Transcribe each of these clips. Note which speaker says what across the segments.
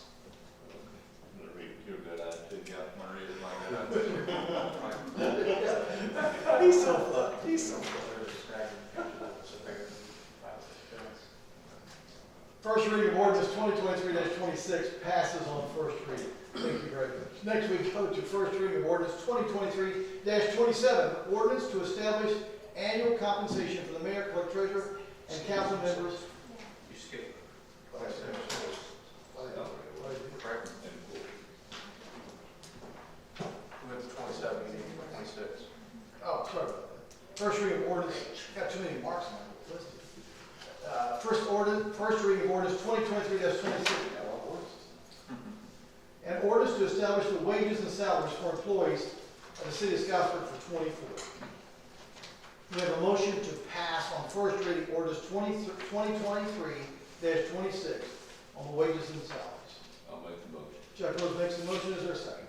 Speaker 1: uh, 2023-26 passes on first reading. Thank you very much. Next, we go to first reading of ordinance 2023-27, ordinance to establish annual compensation for the mayor, clerk treasurer, and council members.
Speaker 2: You skip
Speaker 1: Vice Mayor.
Speaker 2: correct We have the twenty-seven, you need the twenty-six.
Speaker 1: Oh, sorry about that. First reading of ordinance, got too many marks on my list. Uh, First ordinance, first reading of ordinance 2023-26. Got a lot of ordinances. An ordinance to establish the wages and salaries for employees of the city of Scottsburg for twenty-four. We have a motion to pass on first reading ordinance 20 twenty-six on the wages and salaries.
Speaker 2: I'll make the motion.
Speaker 1: Chuck Rose makes the motion, is there a second?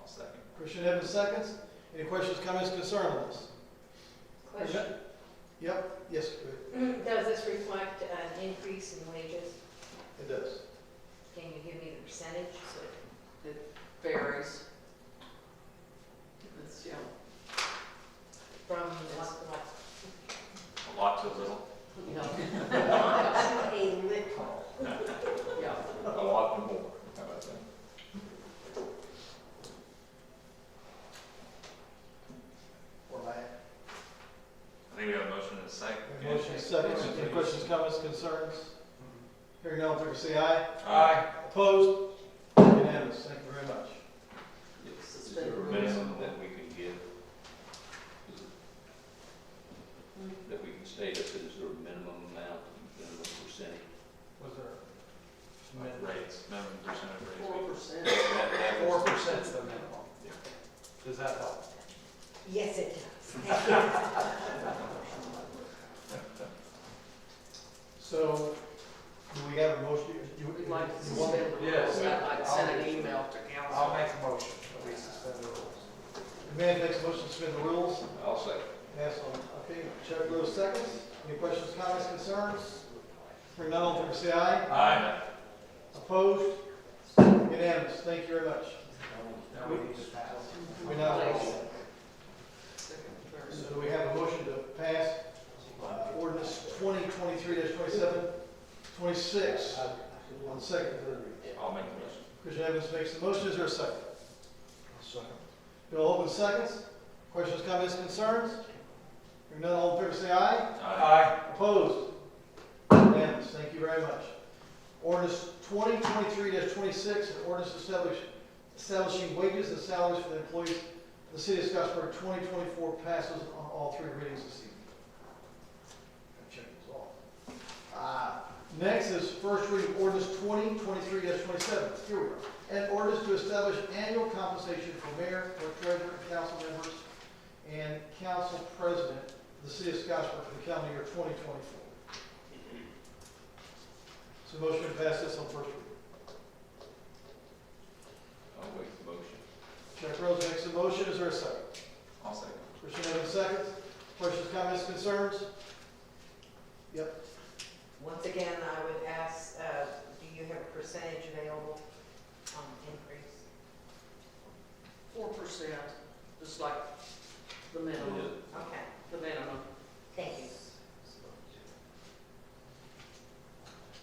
Speaker 2: I'll second.
Speaker 1: Christian Evans seconds. Any questions, comments, concerns on this?
Speaker 3: Question,
Speaker 1: Yep, yes, it-
Speaker 3: does this reflect an increase in wages?
Speaker 1: it does.
Speaker 3: Can you give me the percentage?
Speaker 4: varies. It's, yeah,
Speaker 3: From what, what?
Speaker 2: A lot to a little,
Speaker 3: A
Speaker 4: yeah,
Speaker 3: little.
Speaker 4: yeah.
Speaker 2: a lot to more. How about that?
Speaker 1: Or my-
Speaker 5: I think we have a motion and a second.
Speaker 1: Motion second. Any questions, comments, concerns? Hearing none, all in favor say aye.
Speaker 2: Aye.
Speaker 1: Opposed? Unanimous. Thank you very much.
Speaker 2: Is there a minimum that we can give? That we can state if there's a minimum amount, minimum percentage.
Speaker 1: Was there?
Speaker 5: Rates, minimum percent of
Speaker 4: Four
Speaker 5: rates.
Speaker 4: percent.
Speaker 2: That- that was-
Speaker 1: percent's the minimum. Does that help?
Speaker 3: Yes, it does.
Speaker 1: So, do we have a motion? You- you-
Speaker 4: We'd like to
Speaker 1: you want me-
Speaker 4: suspend the
Speaker 6: Yes.
Speaker 4: rules, I'd like to send an email to
Speaker 6: I'll
Speaker 4: council.
Speaker 6: make a motion that we suspend the rules.
Speaker 1: The man makes a motion to suspend the rules.
Speaker 2: I'll second.
Speaker 1: Pass on. Okay, Chuck Rose seconds. Any questions, comments, concerns? Hearing none, all in favor say aye.
Speaker 6: Aye.
Speaker 1: Opposed? Unanimous. Thank you very much.
Speaker 6: Now we need to pass.
Speaker 1: We now
Speaker 4: Place. Second, third.
Speaker 1: So do we have a motion to pass uh, ordinance twenty twenty-three 27 26 on second, and third reading?
Speaker 5: I'll make the motion.
Speaker 1: Christian Evans makes the motion, is there a second? Bill Holman seconds. Questions, comments, concerns? Hearing none, all in favor say aye.
Speaker 5: Aye.
Speaker 6: Aye.
Speaker 1: Opposed? Unanimous, thank you very much. Ordinance twenty twenty-three twenty-six, an ordinance establish- establishing wages and salaries for the employees of the city of Scottsburg, twenty twenty-four passes on all three readings this evening. Gotta check these off. Uh, Next is first reading ordinance twenty twenty-three twenty-seven, here we are. An ordinance to establish annual compensation for mayor, clerk treasurer, and council members, and council president the city of Scottsburg for the calendar year 2024. So motion to pass this on first reading.
Speaker 2: I'll make the motion.
Speaker 1: Chuck Rose makes a motion, is there a second?
Speaker 5: I'll second.
Speaker 1: Christian Evans seconds. Questions, comments, concerns?
Speaker 3: Once again, I would ask, uh, do you have a percentage available on increase?
Speaker 4: Four percent, just like the minimum,
Speaker 3: Okay,
Speaker 4: the minimum.
Speaker 3: thank you.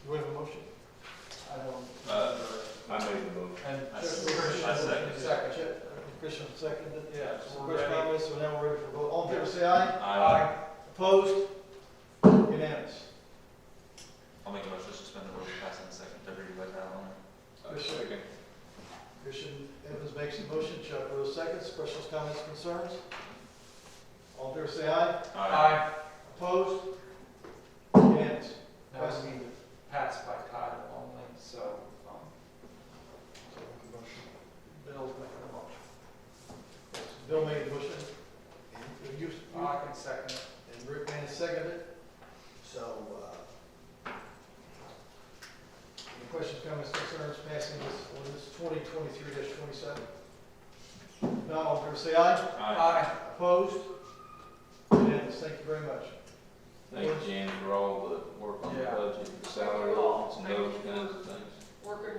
Speaker 1: Do we have a motion? I don't.
Speaker 5: Uh, I made the motion.
Speaker 6: And
Speaker 5: I
Speaker 1: Chuck-
Speaker 5: second.
Speaker 1: Christian-
Speaker 5: I second.
Speaker 1: Second. Chuck- Christian seconded.
Speaker 6: Yeah, so
Speaker 1: So
Speaker 6: we're
Speaker 1: Question,
Speaker 6: ready.
Speaker 1: comments, so now we're ready for vote. All in favor, say aye.
Speaker 5: Aye.
Speaker 1: Opposed? Unanimous.
Speaker 5: I'll make a motion to suspend the rules, pass on second, third reading by title only.
Speaker 2: I'll second.
Speaker 1: Christian Evans makes a motion, Chuck Rose seconds. Questions, comments, concerns? All in favor, say aye.
Speaker 6: Aye.
Speaker 1: Opposed? Unanimous.
Speaker 6: Now we need to pass by title only, so, um,
Speaker 1: Bill's making a motion. Bill made the motion. And you,
Speaker 6: I can second it.
Speaker 1: and Rick Van seconded it. So, uh, any questions, comments, concerns, passing this ordinance twenty twenty-three twenty-seven? Not all in favor, say aye.
Speaker 5: Aye.
Speaker 6: Aye.
Speaker 1: Opposed? Unanimous. Thank you very much.
Speaker 2: Thank you, Jan, for all the work on the
Speaker 6: Yeah.
Speaker 2: budget, the salary, ordinance, and those kinds of things.
Speaker 4: Working